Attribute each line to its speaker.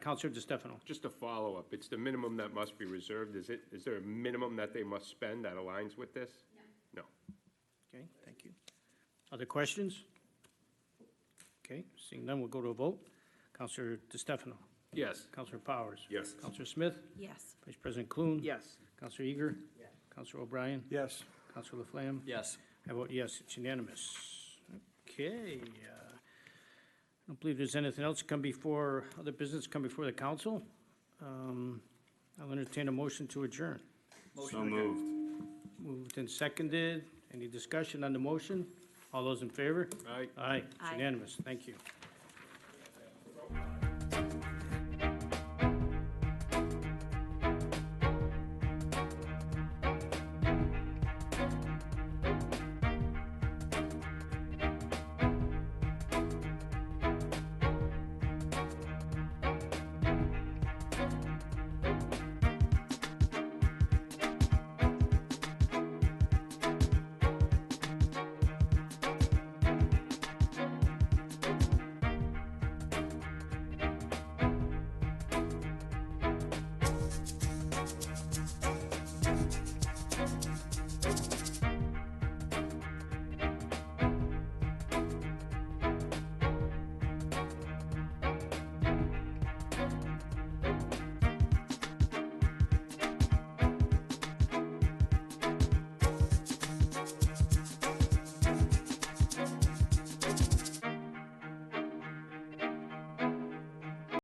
Speaker 1: Counselor DeStefano.
Speaker 2: Just a follow-up, it's the minimum that must be reserved, is it, is there a minimum that they must spend that aligns with this? No.
Speaker 1: Okay, thank you. Other questions? Okay, seeing none, we'll go to a vote. Counselor DeStefano.
Speaker 2: Yes.
Speaker 1: Counselor Powers.
Speaker 2: Yes.
Speaker 1: Counselor Smith.
Speaker 3: Yes.
Speaker 1: Vice President Clune.
Speaker 4: Yes.
Speaker 1: Counselor Eager. Yes. Counselor O'Brien.
Speaker 5: Yes.
Speaker 1: Counselor Laflamme.
Speaker 4: Yes.
Speaker 1: I vote yes, it's unanimous. Okay, uh, I don't believe there's anything else to come before, other business to come before the council. Um, I'll entertain a motion to adjourn.
Speaker 5: So moved.
Speaker 1: Moved and seconded. Any discussion on the motion? All those in favor?
Speaker 2: All right,
Speaker 1: Aye, it's
Speaker 3: Aye.
Speaker 1: unanimous. Thank you.